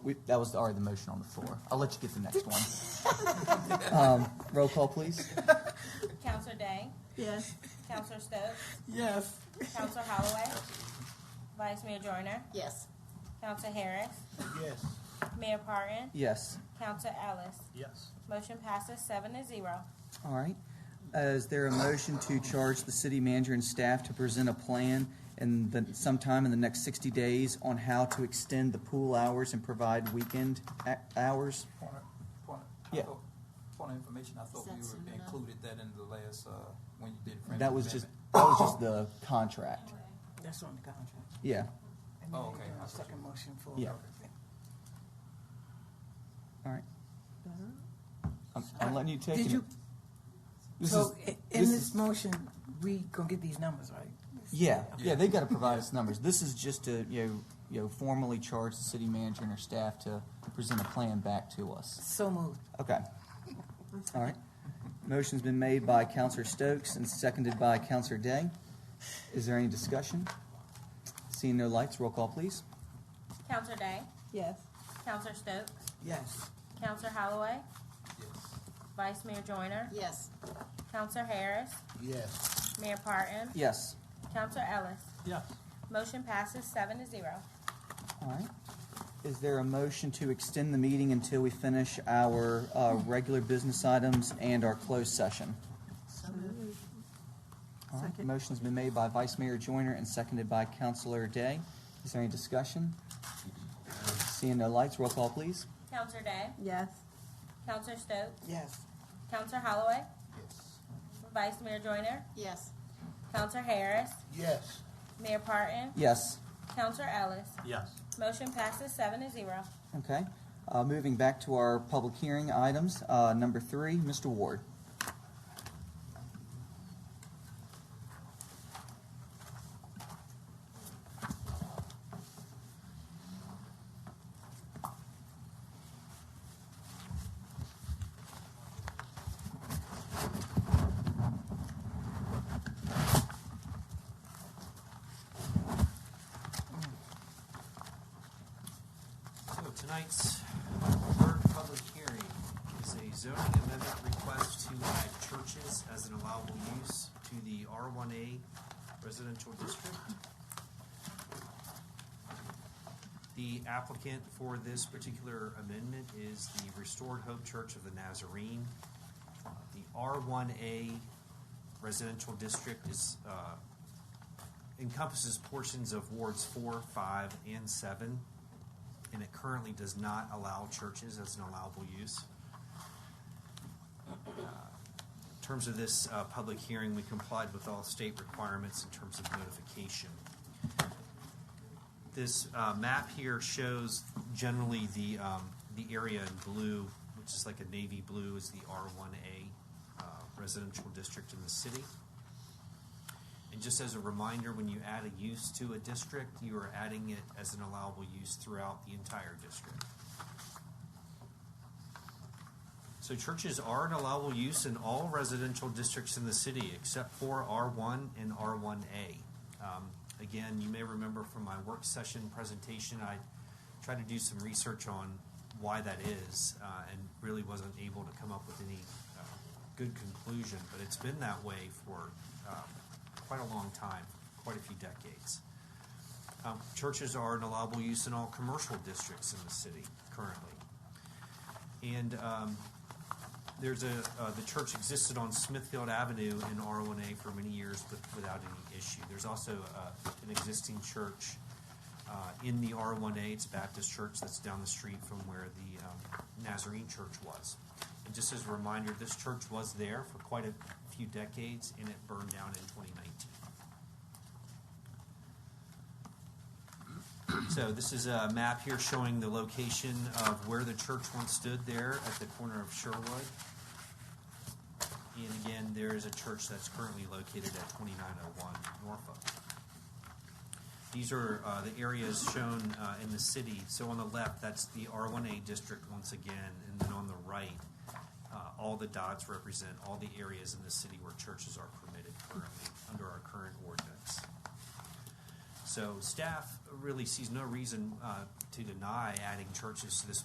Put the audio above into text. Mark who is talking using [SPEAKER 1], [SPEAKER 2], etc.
[SPEAKER 1] We, that was already the motion on the floor. I'll let you get the next one. Um, roll call, please.
[SPEAKER 2] Counselor Day,
[SPEAKER 3] Yes.
[SPEAKER 2] Counselor Stokes,
[SPEAKER 3] Yes.
[SPEAKER 2] Counselor Holloway, Vice Mayor Joyner,
[SPEAKER 3] Yes.
[SPEAKER 2] Counselor Harris,
[SPEAKER 4] Yes.
[SPEAKER 2] Mayor Parton,
[SPEAKER 1] Yes.
[SPEAKER 2] Counselor Ellis.
[SPEAKER 4] Yes.
[SPEAKER 2] Motion passes seven to zero.
[SPEAKER 1] All right. Uh, Is there a motion to charge the city manager and staff to present a plan in the, sometime in the next 60 days on how to extend the pool hours and provide weekend ac- hours?
[SPEAKER 5] Point of, point of. I
[SPEAKER 1] Yeah.
[SPEAKER 5] thought- Point of information, I thought
[SPEAKER 3] that
[SPEAKER 5] we
[SPEAKER 3] soon
[SPEAKER 5] were
[SPEAKER 3] enough?
[SPEAKER 5] included that in the last, uh, when you did. the friendly
[SPEAKER 1] That was just,
[SPEAKER 5] amendment.
[SPEAKER 1] that was just the contract.
[SPEAKER 6] That's on the contract.
[SPEAKER 1] Yeah.
[SPEAKER 6] And
[SPEAKER 5] Oh,
[SPEAKER 6] then
[SPEAKER 5] okay.
[SPEAKER 6] you do
[SPEAKER 5] I
[SPEAKER 6] a
[SPEAKER 5] see.
[SPEAKER 6] Second motion for.
[SPEAKER 1] Yeah. All right. I'm, I'm letting you take it.
[SPEAKER 6] Did you,
[SPEAKER 1] This
[SPEAKER 6] so
[SPEAKER 1] is-
[SPEAKER 6] i- in
[SPEAKER 1] this
[SPEAKER 6] this motion, we gonna get these numbers, right?
[SPEAKER 1] Yeah, yeah, they've got to provide us numbers. This is just to, you know, you know, formally charge the city manager and her staff to present a plan back to us.
[SPEAKER 6] So moved.
[SPEAKER 1] Okay. All right. Motion's been made by Counselor Stokes and seconded by Counselor Day. Is there any discussion? Seeing no lights, roll call, please.
[SPEAKER 2] Counselor Day,
[SPEAKER 3] Yes.
[SPEAKER 2] Counselor Stokes,
[SPEAKER 6] Yes.
[SPEAKER 2] Counselor Holloway,
[SPEAKER 5] Yes.
[SPEAKER 2] Vice Mayor Joyner,
[SPEAKER 3] Yes.
[SPEAKER 2] Counselor Harris,
[SPEAKER 4] Yes.
[SPEAKER 2] Mayor Parton,
[SPEAKER 1] Yes.
[SPEAKER 2] Counselor Ellis.
[SPEAKER 4] Yes.
[SPEAKER 2] Motion passes seven to zero.
[SPEAKER 1] All right. Is there a motion to extend the meeting until we finish our uh, regular business items and our closed session? All right,
[SPEAKER 3] Second.
[SPEAKER 1] motion's been made by Vice Mayor Joyner and seconded by Councilor Day. Is there any discussion? Seeing no lights, roll call, please.
[SPEAKER 2] Counselor Day,
[SPEAKER 3] Yes.
[SPEAKER 2] Counselor Stokes,
[SPEAKER 6] Yes.
[SPEAKER 2] Counselor Holloway,
[SPEAKER 4] Yes.
[SPEAKER 2] Vice Mayor Joyner,
[SPEAKER 3] Yes.
[SPEAKER 2] Counselor Harris,
[SPEAKER 4] Yes.
[SPEAKER 2] Mayor Parton,
[SPEAKER 1] Yes,
[SPEAKER 2] Counselor Ellis.
[SPEAKER 4] Yes.
[SPEAKER 2] Motion passes seven to zero.
[SPEAKER 1] okay. Uh, Moving back to our public hearing items, uh, number three, Mr. Ward.
[SPEAKER 7] So tonight's third public hearing is a zoning amendment request to add churches as an allowable use to the R1A residential district. The applicant for this particular amendment is the Restored Hope Church of the Nazarene. The R1A residential district is, uh, encompasses portions of wards four, five, and seven and it currently does not allow churches as an allowable use. Uh, In terms of this uh, public hearing, we complied with all state requirements in terms of notification. This uh, map here shows generally the, um, the area in blue, which is like a navy blue, is the R1A uh, residential district in the city. And just as a reminder, when you add a use to a district, you are adding it as an allowable use throughout the entire district. So churches are an allowable use in all residential districts in the city except for R1 and R1A. Um, again, you may remember from my work session presentation, I tried to do some research on why that is uh, and really wasn't able to come up with any uh, good conclusion, but it's been that way for uh, quite a long time, quite a few decades. Um, churches are an allowable use in all commercial districts in the city currently. And um, there's a, uh, the church existed on Smithfield Avenue in R1A for many years but without any issue. There's also uh, an existing church uh, in the R1A. It's a Baptist church that's down the street from where the um, Nazarene church was. And just as a reminder, this church was there for quite a few decades and it burned down in 2019. So this is a map here showing the location of where the church once stood there at the corner of Sherwood. And again, there is a church that's currently located at 2901 Norfolk. These are uh, the areas shown uh, in the city. So on the left, that's the R1A district once again, and then on the right, uh, all the dots represent all the areas in the city where churches are permitted currently under our current ordinance. So staff really sees no reason uh, to deny adding churches to this